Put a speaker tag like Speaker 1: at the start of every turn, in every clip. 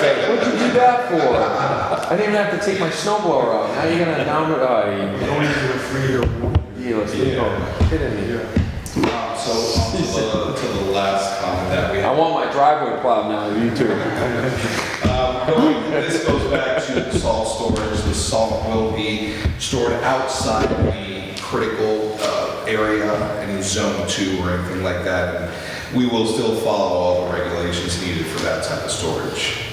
Speaker 1: say
Speaker 2: What'd you do that for? I didn't even have to take my snowblower out. Now you're gonna down it. Oh,
Speaker 3: You don't even have a three-year warning.
Speaker 2: you yeah, yeah. kidding me.
Speaker 1: Um, So on to the, to the last comment that we
Speaker 2: I
Speaker 1: have.
Speaker 2: want my driveway plowed now. You too.
Speaker 1: Um, going- This goes back to the salt storage. The salt will be stored outside the critical uh, area any zone two or anything like that. And We will still follow all the regulations needed for that type of storage.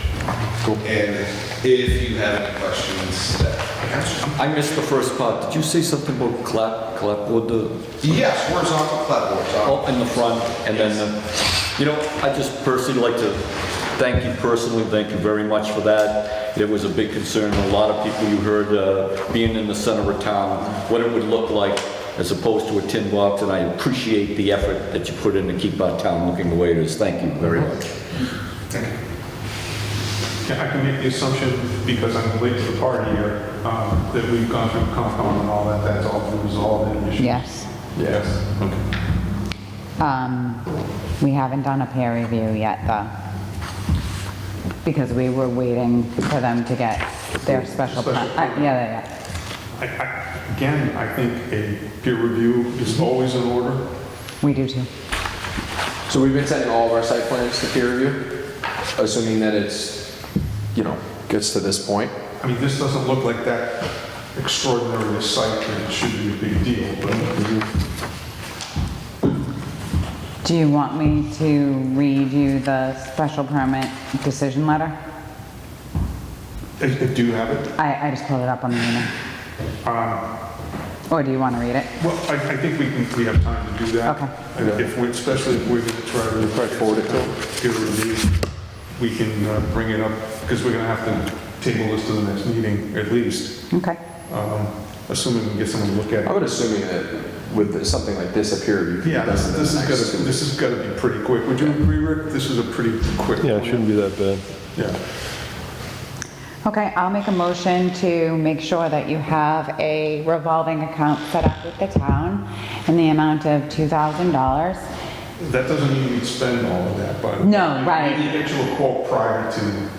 Speaker 1: And if you have any questions, that answer.
Speaker 4: I missed the first part. Did you say something about clap, clapboard, the,
Speaker 1: Yes, horizontal clapboards. um,
Speaker 4: oh, in the front? And then, the- you know, I just personally like to thank you personally, thank you very much for that. It was a big concern. A lot of people you heard, uh, being in the center of town, what it would look like as opposed to a tin box, and I appreciate the effort that you put in to keep our town looking the way it is. Thank you very much.
Speaker 3: Yeah, I can make the assumption, because I'm late to the party here, um, that we've gone through Concom and all that, that's all been resolved in issues.
Speaker 5: Yes.
Speaker 3: Yes, okay.
Speaker 5: Um, We haven't done a peer review yet, though, because we were waiting for them to get their special permit. Uh,
Speaker 3: Special
Speaker 5: Yeah, yeah,
Speaker 3: I- I- Again, I think a peer review is always in order.
Speaker 5: yeah. We do too.
Speaker 2: So we've been sending all of our site plans to peer review, assuming that it's, you know, gets to this point.
Speaker 3: I mean, this doesn't look like that extraordinary a site, and it should be a big deal, but
Speaker 5: Do you want me to read you the special permit decision letter?
Speaker 3: I I do have it.
Speaker 5: I, I just pulled it up on the email. Or do you want to read it?
Speaker 3: Well, I, I think we can, we have time to do that.
Speaker 5: Okay.
Speaker 3: And If, we- especially if we're gonna try to.
Speaker 2: Try to forward it to them.
Speaker 3: Peer review, we can uh, bring it up, because we're gonna have to table this to the next meeting at least,
Speaker 5: Okay.
Speaker 3: um, assuming we can get someone to look at
Speaker 2: I
Speaker 3: it.
Speaker 2: would assuming that with something like this, a peer review. could be
Speaker 3: Yeah,
Speaker 2: done
Speaker 3: this
Speaker 2: in the
Speaker 3: this is
Speaker 2: next two weeks.
Speaker 3: gonna, this is gonna be pretty quick. Would you agree, Rick? This is a pretty quick.
Speaker 6: Yeah,
Speaker 3: one.
Speaker 6: it shouldn't be that bad.
Speaker 3: Yeah.
Speaker 5: Okay, I'll make a motion to make sure that you have a revolving account set up with the town in the amount of $2,000.
Speaker 3: That doesn't mean we'd spend all of that, but.
Speaker 5: No, right.
Speaker 3: We need to get you a quote prior to, um,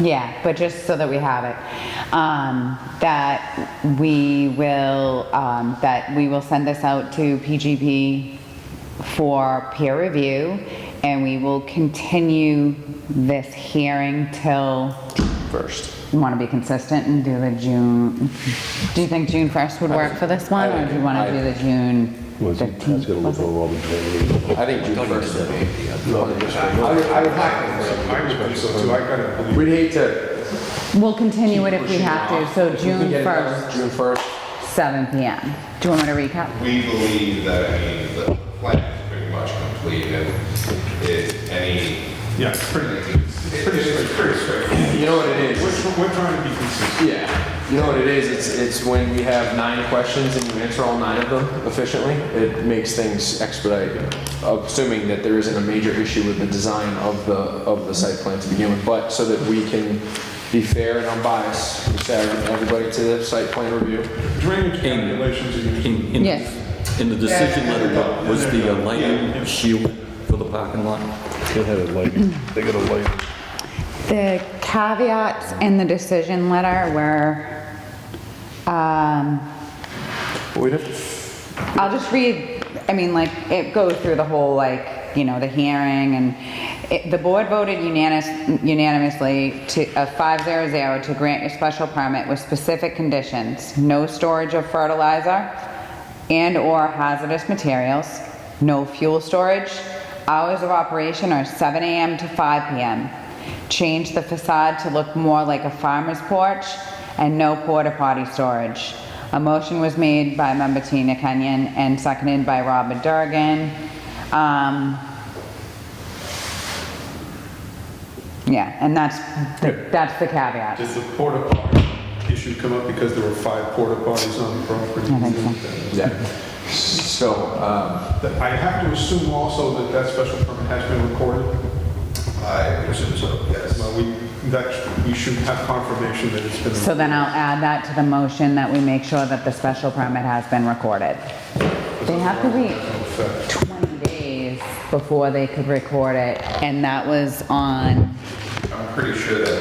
Speaker 5: Yeah, but just so that we have it, um, that we will, um, that we will send this out to PGP for peer review, and we will continue this hearing till,
Speaker 2: First.
Speaker 5: you want to be consistent and do the June, do you think June 1st would work for this one, or do you want to do the June
Speaker 6: Was it, that's
Speaker 5: 15th?
Speaker 6: gonna look
Speaker 5: was it?
Speaker 6: over all the drainage.
Speaker 2: I think June first would be. I would, I would not-
Speaker 3: I would think so too. I gotta believe.
Speaker 2: We'd hate to.
Speaker 5: We'll continue it if we have to, so
Speaker 2: if we can
Speaker 5: June
Speaker 2: get it done
Speaker 5: 1st,
Speaker 2: June first.
Speaker 5: seven PM. Do you want me to recap?
Speaker 1: We believe that, I mean, the plan is pretty much complete and it, any,
Speaker 3: Yeah, it's pretty,
Speaker 1: it's
Speaker 3: pretty
Speaker 1: it's pretty straightforward.
Speaker 2: You know what it
Speaker 3: we're,
Speaker 2: is?
Speaker 3: we're trying to be consistent.
Speaker 2: Yeah. You know what it is? It's, it's when you have nine questions and you answer all nine of them efficiently, it makes things expedite, assuming that there isn't a major issue with the design of the, of the site plan to begin with, but so that we can be fair and unbiased, we send everybody to the site plan review.
Speaker 3: Drainage calculations are usually.
Speaker 4: In, in,
Speaker 5: Yes.
Speaker 4: in the decision letter, what was the uh,
Speaker 3: Yeah.
Speaker 4: lighting shield for the parking lot?
Speaker 6: They had a light, they got a light.
Speaker 5: The caveats in the decision letter were, um,
Speaker 2: We'd have to
Speaker 5: I'll just read, I mean, like, it goes through the whole, like, you know, the hearing and it, the board voted unanimous, unanimously to, a five zero zero to grant your special permit with specific conditions. No storage of fertilizer and/or hazardous materials, no fuel storage. Hours of operation are seven AM to five PM. Change the facade to look more like a farmer's porch and no porta potty storage. A motion was made by member Tina Kenyon and seconded by Robert Durgan. Um, Yeah, and that's, the- that's the caveat.
Speaker 3: Did the porta potty issue come up because there were five porta potties on the property?
Speaker 5: I think
Speaker 2: Yeah. So, um,
Speaker 3: That- I have to assume also that that special permit has been recorded.
Speaker 1: I would assume so, yes.
Speaker 3: Well, we, that, we should have confirmation that it's been.
Speaker 5: So then uh, I'll add that to the motion that we make sure that the special permit has been recorded. They have to wait 20 days before they could record it, and that was on
Speaker 1: I'm pretty sure that